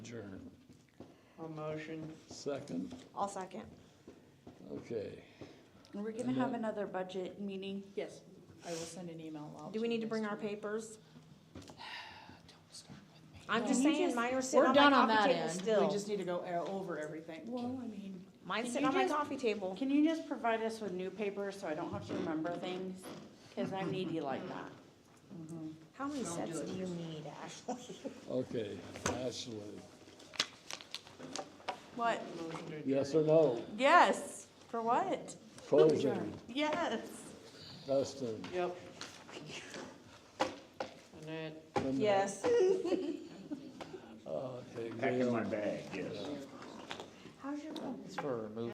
adjourn. A motion. Second, I'll second. okay. And we're gonna have another budget meeting. Yes, I will send an email out. Do we need to bring our papers? Don't start with me. I'm No, just you saying, just- mine are sitting We're on my done on that coffee table end. We still. just need to go uh, over everything. Well, I mean, Mine's Can sitting you on my just- coffee table. can you just provide us with new papers so I don't have to remember things? Cause I'm needy like that. How many sets do you need, Ashley? Okay, Ashley, What? Motion to adjourn. yes or no? Yes, for what? Posing, Yes. Dustin, Yep. Annette, Linda. Yes. Okay, Pack in Gail. my bag, yes. How's your? It's for removing